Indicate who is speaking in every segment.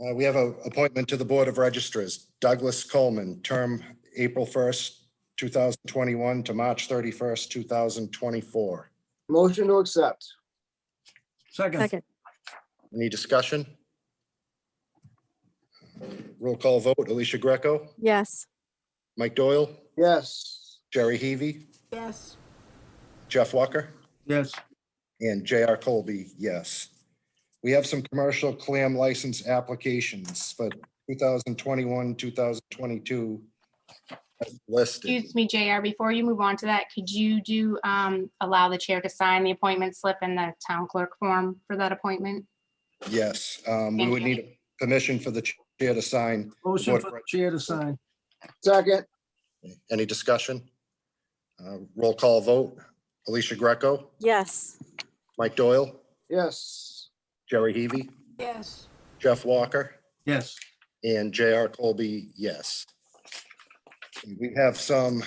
Speaker 1: Uh, we have a appointment to the Board of Registers, Douglas Coleman, term April first, two thousand twenty-one to March thirty-first, two thousand twenty-four.
Speaker 2: Motion to accept.
Speaker 3: Second,
Speaker 4: Second,
Speaker 1: Any discussion? Roll call vote, Alicia Greco,
Speaker 4: yes.
Speaker 1: Mike Doyle,
Speaker 2: Yes.
Speaker 1: Jerry Heavy,
Speaker 5: yes,
Speaker 1: Jeff Walker.
Speaker 3: yes,
Speaker 1: And J.R. Colby, yes. We have some commercial clam license applications for 2021, 2022 as listed.
Speaker 6: Excuse me, JR, before you move on to that, could you do, um, allow the chair to sign the appointment slip and the town clerk form for that appointment?
Speaker 1: Yes, um, we would need permission for the chair to sign.
Speaker 3: motion for the chair to sign,
Speaker 2: Second,
Speaker 1: Any discussion? Uh, Roll call vote. Alicia Greco,
Speaker 4: Yes.
Speaker 1: Mike Doyle,
Speaker 2: yes.
Speaker 1: Jerry Heavy,
Speaker 5: yes,
Speaker 1: Jeff Walker.
Speaker 3: yes,
Speaker 1: And J.R. Colby, yes. We have some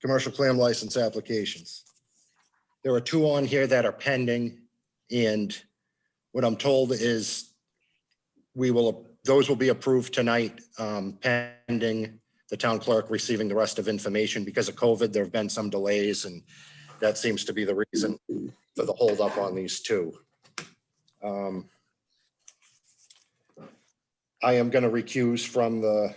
Speaker 1: commercial clam license applications. There are two on here that are pending, and what I'm told is we will, those will be approved tonight um, pending the town clerk receiving the rest of information. Because of COVID, there have been some delays, and that seems to be the reason for the holdup on these two. Um, I am going to recuse from the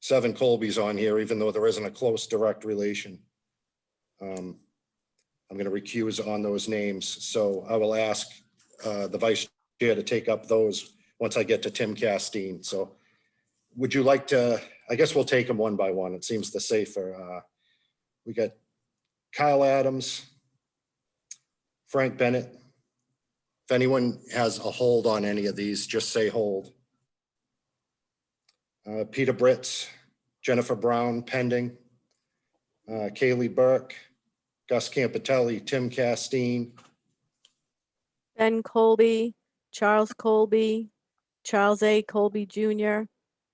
Speaker 1: seven Colbys on here, even though there isn't a close direct relation. Um, I'm going to recuse on those names, so I will ask uh, the vice chair to take up those once I get to Tim Castine. So would you like to, I guess we'll take them one by one. It seems the safer. Uh, We got Kyle Adams, Frank Bennett, if anyone has a hold on any of these, just say hold. Uh, Peter Britz, Jennifer Brown pending, uh, Kaylee Burke, Gus Campitelli, Tim Castine,
Speaker 4: Ben Colby, Charles Colby, Charles A. Colby Jr.,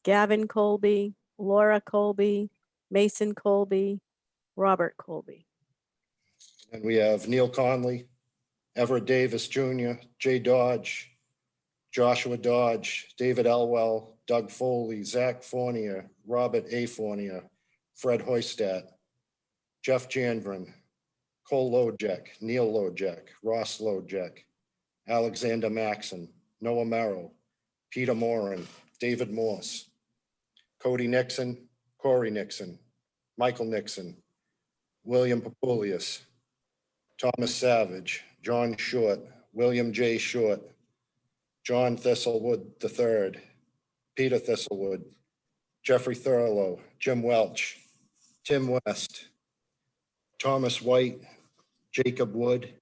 Speaker 4: Gavin Colby, Laura Colby, Mason Colby, Robert Colby.
Speaker 1: and we have Neil Conley, Everett Davis Jr., Jay Dodge, Joshua Dodge, David Elwell, Doug Foley, Zach Fornia, Robert A. Fornia, Fred Hoistat, Jeff Jandren, Cole Lojek, Neil Lojek, Ross Lojek, Alexander Maxon, Noah Merrill, Peter Moran, David Morse, Cody Nixon, Corey Nixon, Michael Nixon, William Papulius, Thomas Savage, John Short, William J. Short, John Thistlewood III, Peter Thistlewood, Jeffrey Thurlow, Jim Welch, Tim West, Thomas White, Jacob Wood,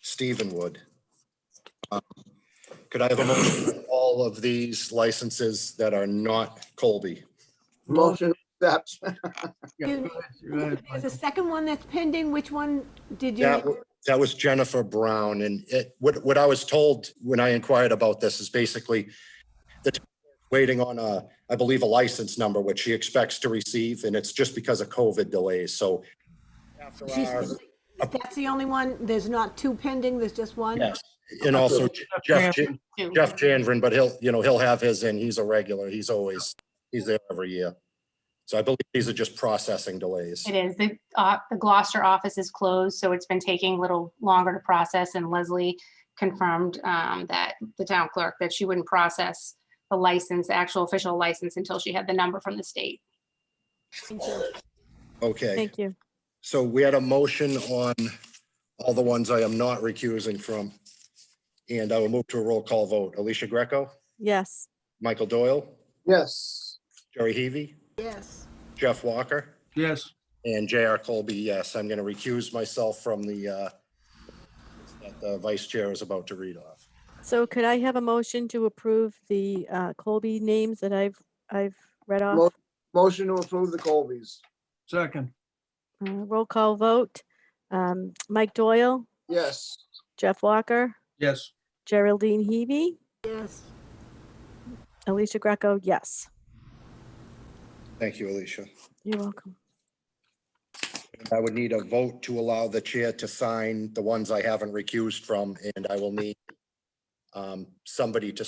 Speaker 1: Stephen Wood. Um, Could I have a motion for all of these licenses that are not Colby?
Speaker 2: Motion to accept.
Speaker 3: yeah,
Speaker 5: Excuse
Speaker 3: go
Speaker 5: me.
Speaker 3: ahead, go ahead,
Speaker 5: There's a
Speaker 3: Michael.
Speaker 5: second one that's pending. Which one did
Speaker 1: That,
Speaker 5: you?
Speaker 1: w- that was Jennifer Brown, and it, what, what I was told when I inquired about this is basically the t- waiting on a, I believe, a license number, which she expects to receive, and it's just because of COVID delays, so. after our-
Speaker 5: She's- That's the only one? There's not two pending, there's just one?
Speaker 1: Yes, and also Jeff, Jan-
Speaker 6: Two.
Speaker 1: Jeff Janvren, but he'll, you know, he'll have his in, he's a regular, he's always, he's there every year. So I believe these are just processing delays.
Speaker 6: It is. The, uh, the Gloucester office is closed, so it's been taking a little longer to process and Leslie confirmed, um, that the town clerk, that she wouldn't process the license, the actual official license until she had the number from the state.
Speaker 1: Okay,
Speaker 4: Thank you.
Speaker 1: so we had a motion on all the ones I am not recusing from. And I will move to a roll call vote. Alicia Greco,
Speaker 4: Yes.
Speaker 1: Michael Doyle,
Speaker 2: Yes.
Speaker 1: Jerry Heavy,
Speaker 5: Yes,
Speaker 1: Jeff Walker,
Speaker 3: yes,
Speaker 1: and J.R. Colby, yes. I'm going to recuse myself from the, uh, that the vice chair is about to read off.
Speaker 4: So could I have a motion to approve the uh, Colby names that I've, I've read
Speaker 2: Mo-
Speaker 4: off?
Speaker 2: Motion to approve the Colbys.
Speaker 3: second,
Speaker 4: Uh, Roll call vote. Um, Mike Doyle,
Speaker 2: Yes.
Speaker 4: Jeff Walker,
Speaker 3: yes,
Speaker 4: Geraldine Hebe,
Speaker 5: yes.
Speaker 4: Alicia Greco, yes.
Speaker 1: Thank you, Alicia.
Speaker 4: You're welcome.
Speaker 1: I would need a vote to allow the chair to sign the ones I haven't recused from, and I will need um, somebody to